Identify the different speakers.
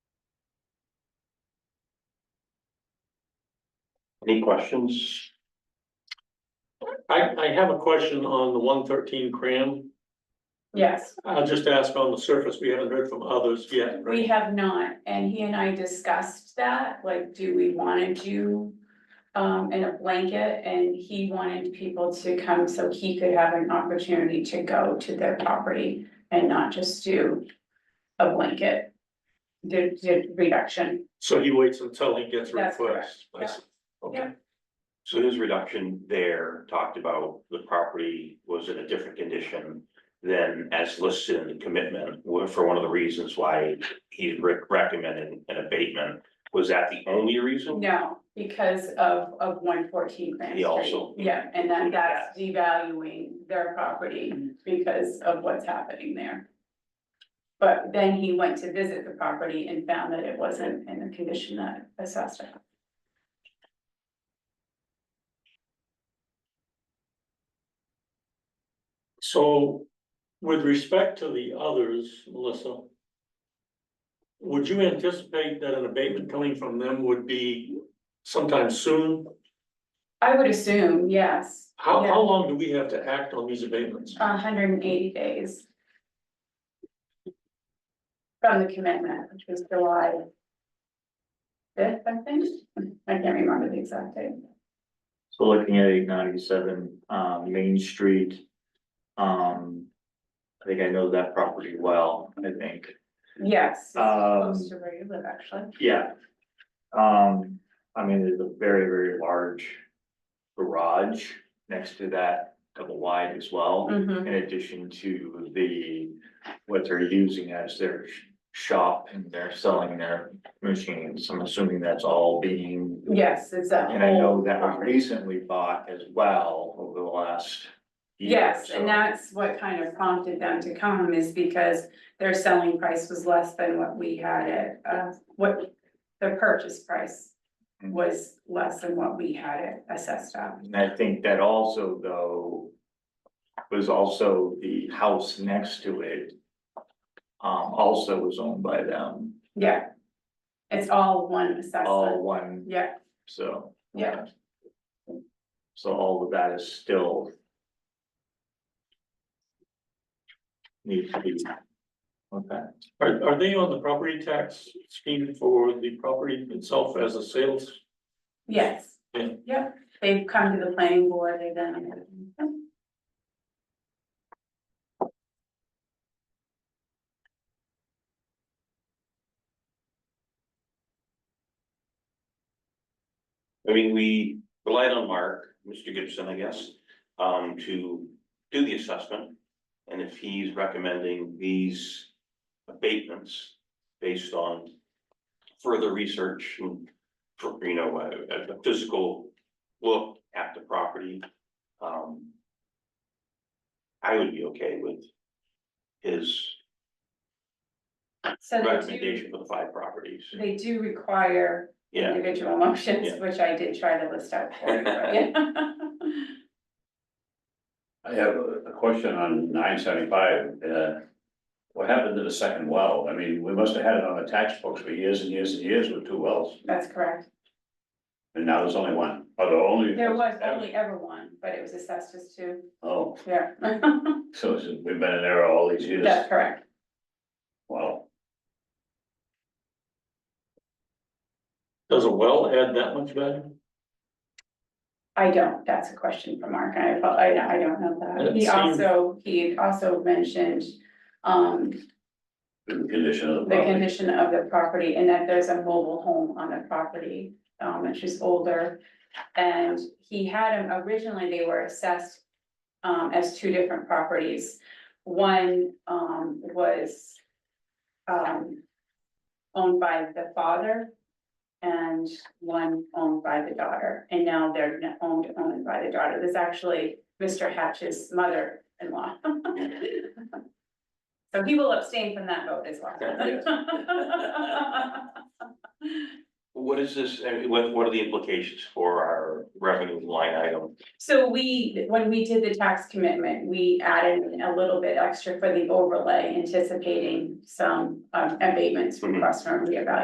Speaker 1: Any questions?
Speaker 2: I, I have a question on the one thirteen cram.
Speaker 3: Yes,
Speaker 2: I'll just ask on the surface, we haven't heard from others yet,
Speaker 3: we
Speaker 2: right?
Speaker 3: have not, and he and I discussed that, like, do we wanna do um in a blanket, and he wanted people to come so he could have an opportunity to go to their property and not just do a blanket. The the reduction,
Speaker 2: So he waits until he gets
Speaker 3: That's
Speaker 2: requests. I
Speaker 3: correct.
Speaker 2: see. Okay,
Speaker 1: So his reduction there talked about the property was in a different condition than as listed in the commitment, were for one of the reasons why he re- recommended an abatement. Was that the only reason?
Speaker 3: no, because of of one fourteen Grand
Speaker 1: He
Speaker 3: Street.
Speaker 1: also-
Speaker 3: Yeah, and then that's devaluing their property because of what's happening there. But then he went to visit the property and found that it wasn't in the condition that assessed it.
Speaker 2: so with respect to the others, Melissa. Would you anticipate that an abatement coming from them would be sometime soon?
Speaker 3: I would assume, yes,
Speaker 2: How,
Speaker 3: Yeah.
Speaker 2: how long do we have to act on these abatements?
Speaker 3: hundred and eighty days. From the commitment, which was July. Fifth, I think, I can't remember the exact date.
Speaker 4: So looking at eight ninety-seven, um, Main Street, um. I think I know that property well, I think,
Speaker 3: Yes, it's close
Speaker 4: Um,
Speaker 3: to where you live, actually.
Speaker 4: yeah. Um, I mean, there's a very, very large garage next to that double wide as well.
Speaker 3: Mhm.
Speaker 4: In addition to the, what they're using as their sh- shop and they're selling their machines, I'm assuming that's all being.
Speaker 3: yes, it's that whole.
Speaker 4: And I know that was
Speaker 3: property.
Speaker 4: recently bought as well over the last. year,
Speaker 3: Yes,
Speaker 4: so-
Speaker 3: and that's what kind of prompted them to come is because their selling price was less than what we had it, uh, what the purchase price
Speaker 4: Mm-hmm.
Speaker 3: was less than what we had it assessed at.
Speaker 4: And I think that also though, was also the house next to it. Um, also was owned by them,
Speaker 3: Yeah. It's all one
Speaker 4: all
Speaker 3: assessment.
Speaker 4: one,
Speaker 3: Yeah,
Speaker 4: so.
Speaker 3: Yeah.
Speaker 4: So all of that is still. Needs to be. Okay.
Speaker 2: Are, are they on the property tax scheme for the property itself as a sales?
Speaker 3: yes.
Speaker 2: Yeah.
Speaker 3: Yep, they've come to the planning board, they've done. it.
Speaker 1: I mean, we relied on Mark, Mr. Gibson, I guess, um, to do the assessment. And if he's recommending these abatements based on further research and, you know, a, a physical look at the property, um, I would be okay with his
Speaker 3: So they do,
Speaker 1: recommendation for the five properties.
Speaker 3: they do require
Speaker 1: Yeah,
Speaker 3: individual motions,
Speaker 1: Yeah.
Speaker 3: which I did try to list out for you, but yeah.
Speaker 5: I have a a question on nine seventy-five, uh, what happened to the second well? I mean, we must have had it on the tax books for years and years and years with two wells,
Speaker 3: That's correct.
Speaker 5: and now there's only one, or the only.
Speaker 3: There was only ever one, but it was assessed as two,
Speaker 5: Oh,
Speaker 3: yeah.
Speaker 5: so it's- we've been in there all these years,
Speaker 3: That's correct,
Speaker 5: wow,
Speaker 2: Does a well add that much value?
Speaker 3: I don't, that's a question for Mark, I, apo- I, I don't know that.
Speaker 2: It
Speaker 3: He
Speaker 2: seemed-
Speaker 3: also, he had also mentioned, um,
Speaker 5: the condition of the
Speaker 3: the
Speaker 5: property.
Speaker 3: condition of the property and that there's a mobile home on the property, um, which is older. And he had them, originally they were assessed, um, as two different properties. One, um, was, um, owned by the father and one owned by the daughter. And now they're n- owned, owned by the daughter. There's actually Mr. Hatch's mother-in-law. So he will abstain from that vote as well.
Speaker 1: what is this, I mean, what, what are the implications for our revenue line item?
Speaker 3: So we, when we did the tax commitment, we added a little bit extra for the overlay anticipating some um, abatements requests from reevaluation.